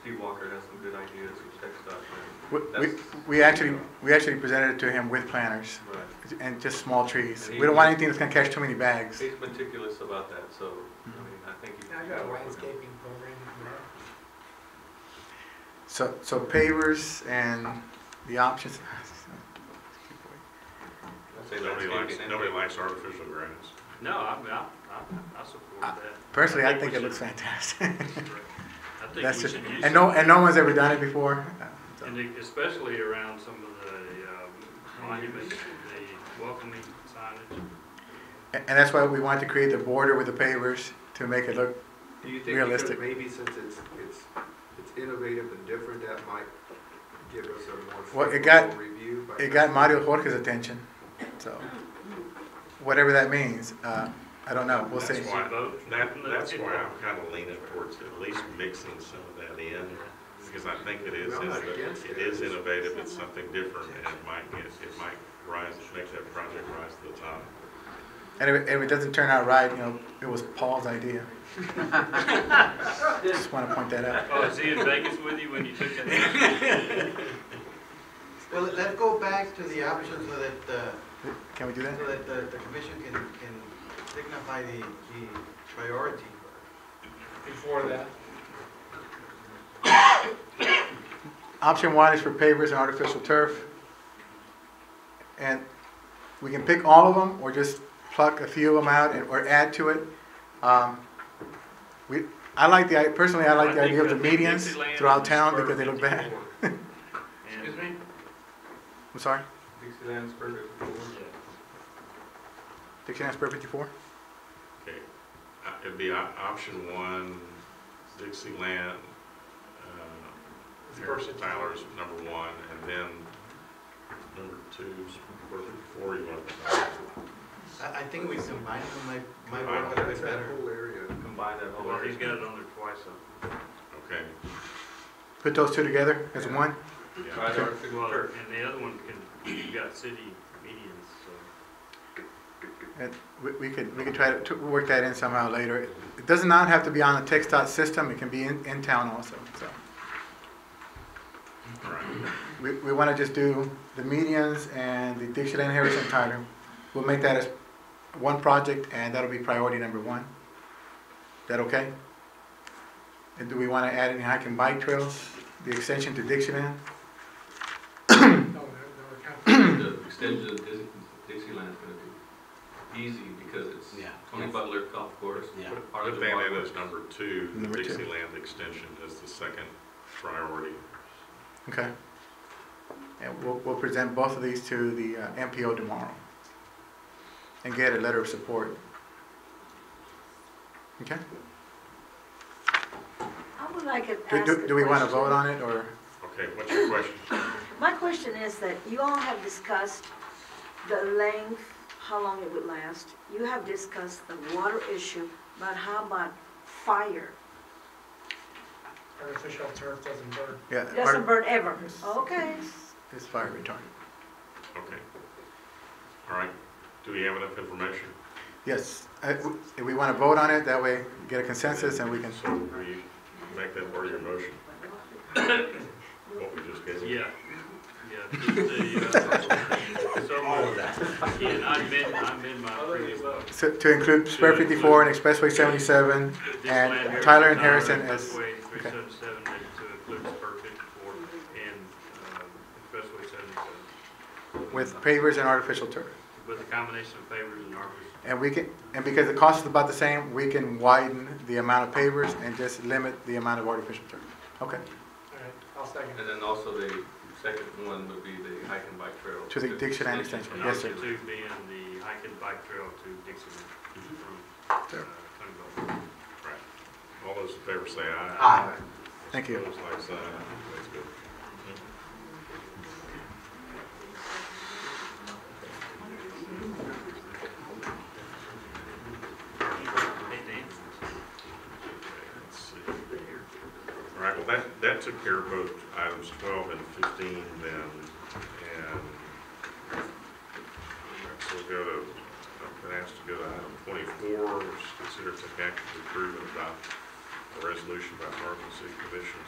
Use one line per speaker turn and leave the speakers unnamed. Steve Walker has some good ideas with tech stuff,
We, we-
That's-
we actually, we actually presented it to him with planters
and, right.
and just small trees.
And he-
We don't want anything that's gonna catch too many bags.
He's meticulous about that, so, I mean, I think you.
Now you got a landscaping program in there.
So, so pavers and the options.
Say
Nobody likes,
landscaping and-
nobody likes artificial grass.
No, I, I, I, I support
Uh,
that.
Personally, I
we
think it
should-
looks fantastic.
I think
That's
we
just,
should use
and
it,
no, and no one's ever done it before. So,
and it- especially around some of the um, monuments, the welcoming signage.
a- And that's why we wanted to create the border with the pavers to make it look,
Do you think because
Realistic.
maybe since it's, it's, it's innovative and different, that might give us a more
Well, it got-
favorable review? by-
it got Mario Jorge's attention, so. Whatever that means, uh, I don't know, we'll
That's
see.
why-
Should vote.
That, that's why I'm kind of leaning towards at least mixing some of that in, because I think it is,
Well, I'm not against
innov- it
it.
is innovative, it's something different, and it might get, it might rise, make that project rise to the top.
And if, if it doesn't turn out right, you know, it was Paul's idea. Just wanna point that out.
Oh, is he in Vegas with you when you took that?
Well, let- let's go back to the option so that, uh,
Can we do that?
so that the, the commission can, can signify the, the priority.
Before that,
Option one is for pavers and artificial turf. And we can pick all of them or just pluck a few of them out and, or add to it. Um, We, I like the, i- personally, I like the
I
idea of the
think- I think
medians
Dixieland
throughout
is
town
spur
because they look bad.
54. And-
excuse me?
I'm sorry,
Dixieland's perfect.
Dixieland Spur fifty-four?
Okay, Uh, it'd be op- option one, Dixieland, uh, Harrison Tyler's number one, and then number two, Sport four, you want to.
I, I think we combine them, might, might
Combine
work a bit
them.
That's that
better.
whole area.
Combine that whole.
Well, he's got it on there twice, so.
Okay,
Put those two together as one?
yeah,
Try the artificial
Well,
turf.
and the other one can, you've got city medians, so.
And we, we could, we could try to, to work that in somehow later. It does not have to be on the TechStot system, it can be in, in town also, so.
all right.
We, we wanna just do the medians and the Dixieland Harrison Tyler. We'll make that as one project and that'll be priority number one. That okay? And do we wanna add any hike and bike trails, the extension to Dixieland?
no, no, no,
The extension of Dis- Dixieland's gonna be easy because it's
Yeah.
Tony Butler Golf Course.
Yeah.
Arthur
Put that in
Walker.
as number two, the
Number two.
Dixieland extension as the second priority.
Okay. And we'll, we'll present both of these to the uh, MPO tomorrow and get a letter of support. Okay?
I would like to
Do,
ask
do,
a
do we want to
question.
vote on it or?
Okay, what's your question?
My question is that you all have discussed the length, how long it would last. You have discussed the water issue, but how about fire?
artificial turf doesn't burn.
Yeah,
Doesn't burn ever.
Yes.
Okay.
it's fire retardant.
Okay. All right, do we have enough information?
Yes, I- w- if we want to vote on it, that way get a consensus and we can,
So we make that part of your motion, what we just gave. you?
Yeah, yeah. just the, uh, so-
All of that.
Yeah, I amend, I amend my
Other
previous.
than that,
so to include Spur 54 and Expressway 77. And Tyler and Harrison as-
Expressway three
okay.
seventy-seven to include spur fifty-four and, um, expressway seventy-seven.
with pavers and artificial turf.
With a combination of pavers and arbors.
And we can, and because the cost is about the same, we can widen the amount of pavers and just limit the amount of artificial turf. Okay,
All right, I'll second it.
And then also the second one would be the hike and bike trail.
To the Dixieland extension.
And
Yes,
option
sir.
two being the hike and bike trail to Dixon from, uh,
Sure.
Tony
All
Bell.
right. All those in favor say aye.
Aye.
thank you.
Those like sign, that's good.
Hey, Dan.
Let's see. All right, well, that, that took care of both items twelve and fifteen then, and so we'll go to, I've been asked to go to item twenty-four, which is consider to take action to approve and adopt a resolution by Harlem City Commission